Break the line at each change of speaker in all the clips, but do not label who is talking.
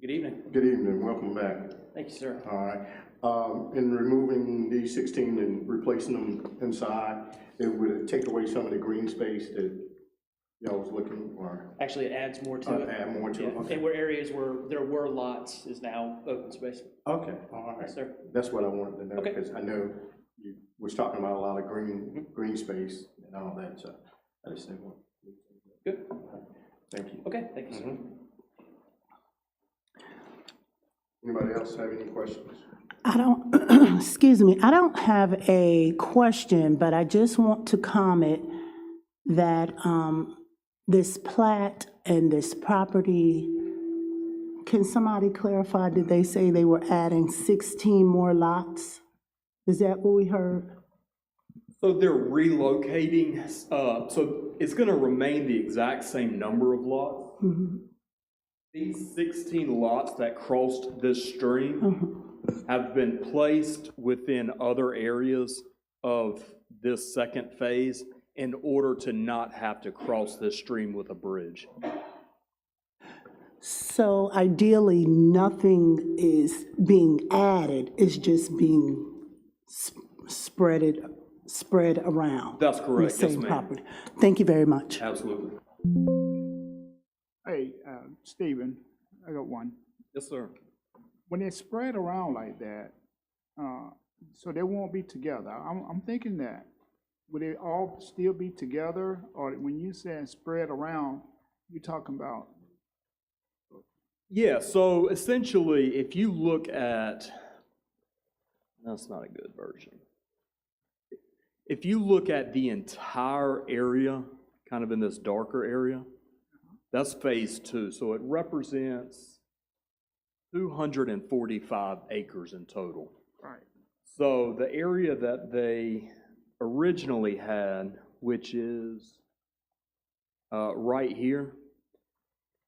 Good evening.
Good evening, welcome back.
Thank you, sir.
All right, um, in removing the sixteen and replacing them inside, it would take away some of the green space that y'all was looking for,
Actually, it adds more to
uh,
it.
add more to it.
Yeah,
Okay.
And where areas where there were lots is now open space.
Okay, all right,
Yes, sir.
that's what I wanted to know,
Okay. Mm-hmm.
because I know you was talking about a lot of green, green space and all that, so I just didn't want.
Good.
Thank you.
Okay, thank you, sir.
Anybody else have any questions?
I don't, excuse me, I don't have a question, but I just want to comment that um, this plat and this property, can somebody clarify, did they say they were adding 16 more lots? Is that what we heard?
So they're relocating, uh, so it's gonna remain the exact same number of lots.
Mhm.
These sixteen lots that crossed this stream have been placed within other areas of this second phase in order to not have to cross this stream with a bridge.
So ideally, nothing is being added, it's just being sp- spreaded, spread around.
That's
on the
correct, yes,
same
ma'am.
property. Thank you very much.
Absolutely.
Hey, uh, Stephen, I got one.
Yes, sir.
When they spread around like that, uh, so they won't be together. I'm, I'm thinking that, would they all still be together? Or when you said spread around, you're talking about,
Yeah, so essentially, if you look at, that's not a good version. If you look at the entire area, kind of in this darker area, that's phase two. So it represents 245 acres in total.
right,
So the area that they originally had, which is uh, right here,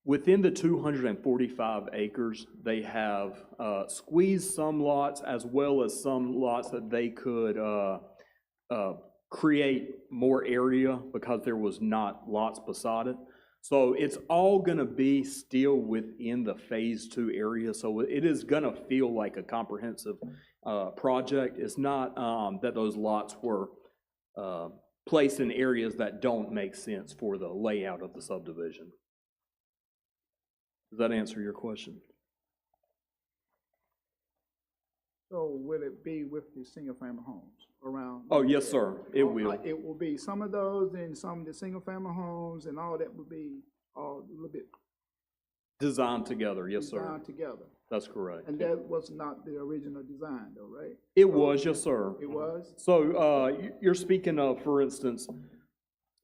within the 245 acres, they have uh, squeezed some lots as well as some lots that they could uh, uh, create more area because there was not lots beside it. So it's all going to be still within the Phase Two area. So it is going to feel like a comprehensive uh, project. It's not um, that those lots were uh, placed in areas that don't make sense for the layout of the subdivision. Does that answer your question?
so will it be with the single-family homes around?
Oh, yes, sir, it will.
It will be some of those and some of the single-family homes and all that will be all a little bit
Designed together, yes, sir.
designed together.
That's correct.
And that was not the original design though, right?
It was, yes, sir.
It was?
So uh, you- you're speaking of, for instance,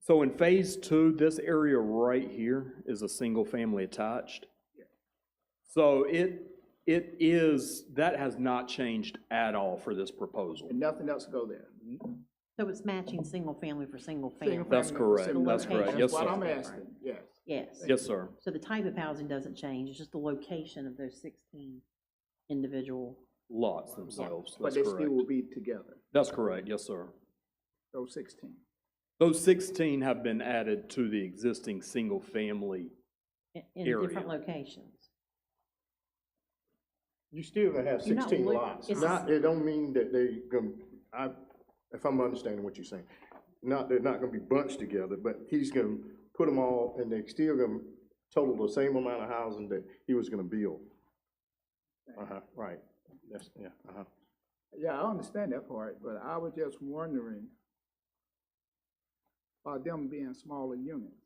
so in Phase Two, this area right here is a single-family attached. So it, it is, that has not changed at all for this proposal.
And nothing else go there?
Mm-hmm.
So it's matching single family for single
Single
family?
That's
family,
correct.
single
That's
family.
correct.
That's
Yes,
what
sir.
I'm asking, yes.
Yes.
Yes, sir.
So the type of housing doesn't change, it's just the location of those sixteen individual.
Lots themselves,
But
that's
they still will
correct.
be together,
That's correct, yes, sir.
those sixteen.
Those 16 have been added to the existing single-family.
in- In
Area.
different locations.
You still gonna have
You're not
sixteen
look-
lots.
it's-
Not, it don't mean that they gonna, I, if I'm understanding what you're saying, not, they're not gonna be bunched together, but he's gonna put them all, and they still gonna total the same amount of housing that he was gonna build. Uh-huh, right, that's, yeah, uh-huh.
Yeah, I understand that part, but I was just wondering about them being smaller units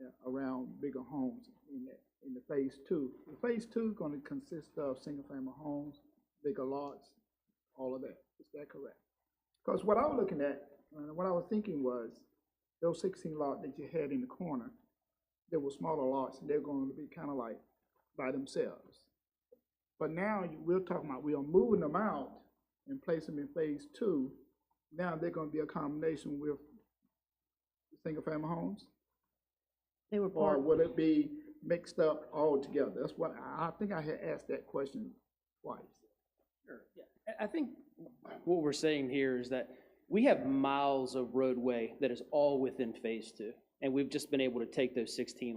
yeah, around bigger homes in the, in the phase two. The phase two gonna consist of single-family homes, bigger lots, all of that. Is that correct? Because what I was looking at, uh, what I was thinking was, those sixteen lot that you had in the corner, they were smaller lots, and they're gonna be kind of like by themselves. But now, you- we're talking about, we are moving them out and place them in phase two. Now, they're gonna be a combination with single-family homes?
They were
Or
part,
will it be mixed up all together? That's what, I, I think I had asked that question twice.
I- I think what we're saying here is that we have miles of roadway that is all within phase two. And we've just been able to take those sixteen